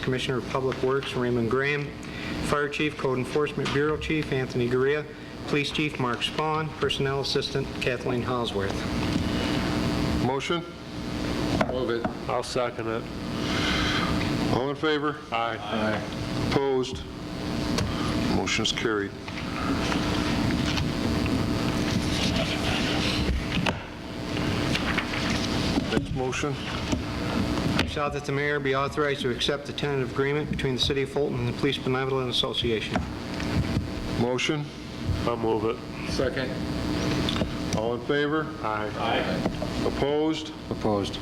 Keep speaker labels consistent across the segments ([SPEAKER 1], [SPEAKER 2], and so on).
[SPEAKER 1] Commissioner of Public Works Raymond Graham, Fire Chief, Code Enforcement Bureau Chief Anthony Guerrilla, Police Chief Mark Spawn, Personnel Assistant Kathleen Halsworth.
[SPEAKER 2] Motion?
[SPEAKER 3] Move it. I'll second it.
[SPEAKER 2] All in favor?
[SPEAKER 3] Aye.
[SPEAKER 2] Opposed? Motion is carried. Next motion?
[SPEAKER 1] Resolved that the mayor be authorized to accept the tentative agreement between the City of Fulton and the Police Benevolent Association.
[SPEAKER 2] Motion?
[SPEAKER 3] I'll move it. Second.
[SPEAKER 2] All in favor?
[SPEAKER 3] Aye.
[SPEAKER 2] Opposed?
[SPEAKER 4] Opposed.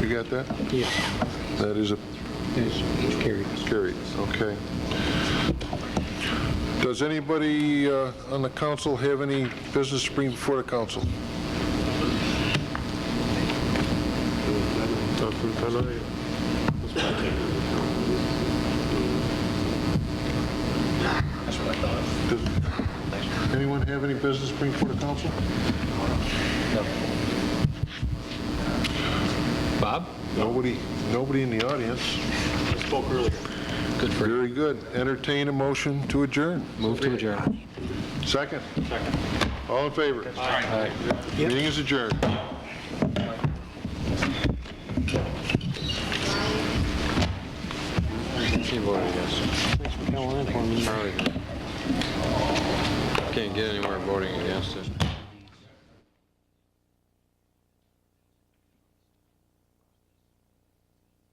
[SPEAKER 2] You got that?
[SPEAKER 1] Yes,
[SPEAKER 2] That is a
[SPEAKER 1] it's carried.
[SPEAKER 2] carried, okay. Does anybody uh, on the council have any business to bring before the council?
[SPEAKER 3] Nothing tonight.
[SPEAKER 2] Does anyone have any business to bring before the council?
[SPEAKER 4] Bob?
[SPEAKER 2] Nobody, nobody in the audience.
[SPEAKER 4] Good for
[SPEAKER 2] Very good. Entertain a motion to adjourn.
[SPEAKER 4] Move to adjourn.
[SPEAKER 2] Second? Second. All in favor? Aye. Meeting is adjourned.
[SPEAKER 4] He voted yes.
[SPEAKER 1] Thanks for coming in for me.
[SPEAKER 4] Charlie. Can't get anywhere voting against it.